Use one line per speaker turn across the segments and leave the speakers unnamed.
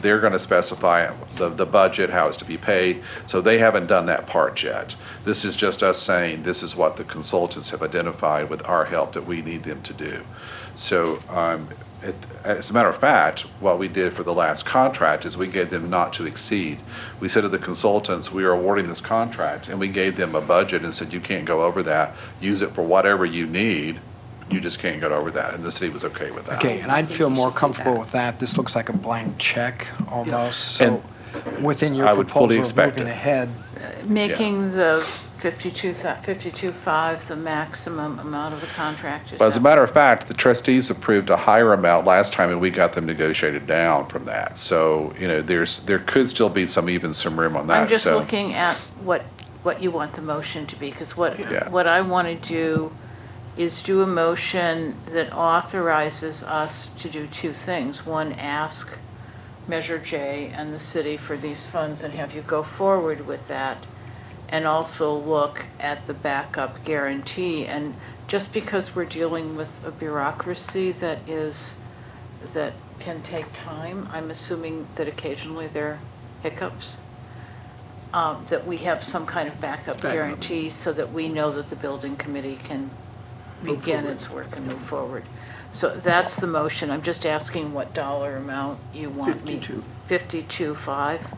They're going to specify the, the budget, how it's to be paid, so they haven't done that part yet. This is just us saying, this is what the consultants have identified with our help that we need them to do. So, um, it- as a matter of fact, what we did for the last contract is we gave them not to exceed. We said to the consultants, we are awarding this contract, and we gave them a budget and said, you can't go over that. Use it for whatever you need, you just can't go over that, and the city was okay with that.
Okay, and I'd feel more comfortable with that. This looks like a blank check almost, so within your
I would fully
proposal of
expect
moving
it.
ahead,
Making the 52, 52.5 the maximum amount of the contract. is
But as a
that-
matter of fact, the trustees approved a higher amount last time, and we got them negotiated down from that. So, you know, there's, there could still be some, even some room on that.
I'm just
So-
looking at what, what you want the motion to be, because what,
Yeah.
what I want to do is do a motion that authorizes us to do two things. One, ask Measure J and the city for these funds and have you go forward with that. And also look at the backup guarantee. And just because we're dealing with a bureaucracy that is, that can take time, I'm assuming that occasionally there are hiccups um, that we have some kind of backup
Backup.
guarantee so that we know that the building committee can begin its work and move forward. So that's the motion. I'm just asking what dollar amount you want me.
52.
Fifty-two, five?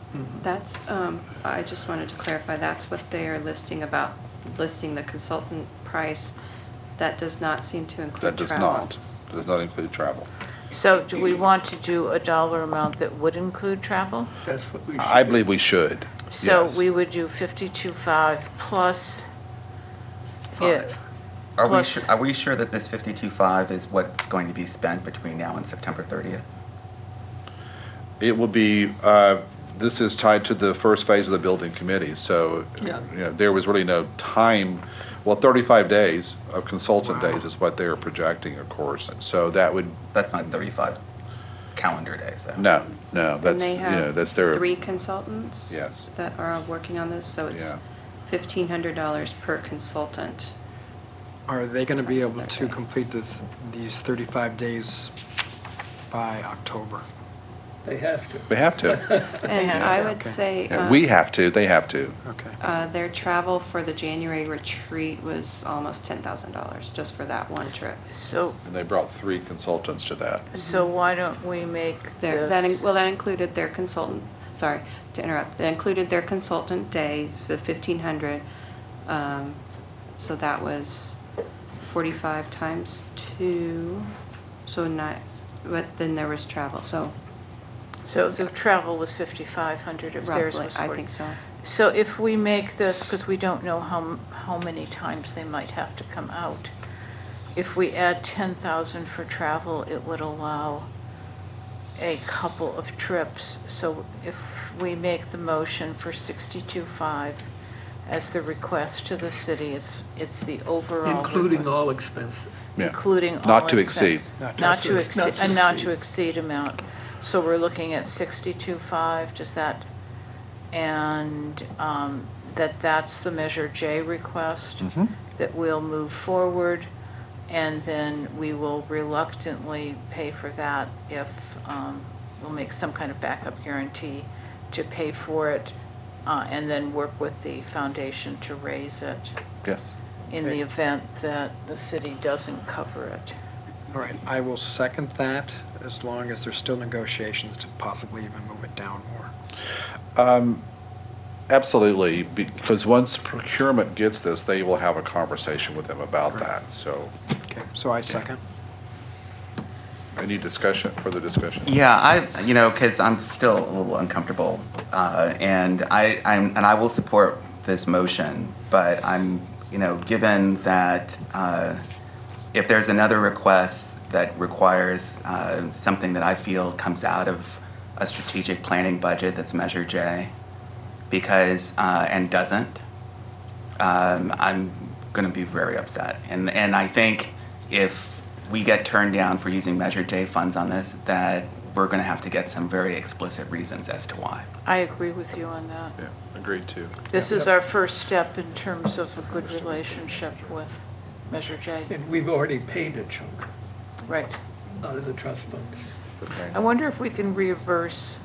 That's, um, I just wanted to clarify, that's what they are listing about, listing the consultant price. That does not seem to include
That does
travel.
not, does not include travel.
So do we want to do a dollar amount that would include travel?
That's what we should.
I believe we should.
So
Yes.
we would do fifty-two, five plus.
Five.
Yeah.
Are we,
Plus-
sure, are we sure that this 52.5 is what's going to be spent between now and September 30th?
It will be, uh, this is tied to the first phase of the building committee, so, you
Yeah.
know, there was really no time, well, 35 days of consultant days is what they're projecting, of course. So that would,
That's not 35 calendar days. though.
no, no,
And
that's,
they
you know,
have
that's their.
three consultants.
Yes.
That are working on this, so it's
Yeah.
fifteen hundred dollars per consultant.
are they going to be
Times
able
their
to
day.
complete this, these 35 days by October?
They have to.
They have to.
And
have
I
to,
would
okay.
say,
Yeah,
um,
We have to, they have to.
Okay.
uh, their travel for the January retreat was almost ten thousand dollars, just for that one trip.
So,
And they brought three consultants to that.
so why don't we make
Their, that, in-
this?
well, that included their consultant, sorry to interrupt, that included their consultant days, the fifteen hundred. Um, so that was forty-five times two, so nine, but then there was travel, so
So the travel was fifty-five hundred if theirs
roughly,
was
I
forty.
think so.
So if we make this, because we don't know how, m- how many times they might have to come out, if we add ten thousand for travel, it would allow a couple of trips. So if we make the motion for sixty-two five as the request to the city, it's, it's the overall.
Including
request.
all expenses.
Yeah.
Including all.
Not to exceed.
expenses.
Not to
Not to
exceed.
exceed, a not to exceed amount. So we're looking at sixty-two five, does that, and um, that that's the Measure J request.
Mhm.
That we'll move forward, and then we will reluctantly pay for that if, um, we'll make some kind of backup guarantee to pay for it, uh, and then work with the foundation to raise it
Yes.
in the event that the city doesn't cover it.
All right, I will second that as long as there's still negotiations to possibly even move it down more.
Um, Absolutely, because once procurement gets this, they will have a conversation with them about that. So,
Okay, so I second.
any discussion, further discussion?
Yeah, I you know because I'm still a little uncomfortable, uh, and I I'm, and I will support this motion, but I'm you know given that uh, if there's another request that requires uh, something that I feel comes out of a strategic planning budget that's Measure J, because uh, and doesn't, um, I'm going to be very upset. And, and I think if we get turned down for using Measure J funds on this, that we're going to have to get some very explicit reasons as to why.
I agree with you on that.
Yeah, agreed to.
This is our first step in terms of a good relationship with Measure J.
And we've already paid a chunk
Right.
out of the trust fund.
I wonder if we can uh, reimburse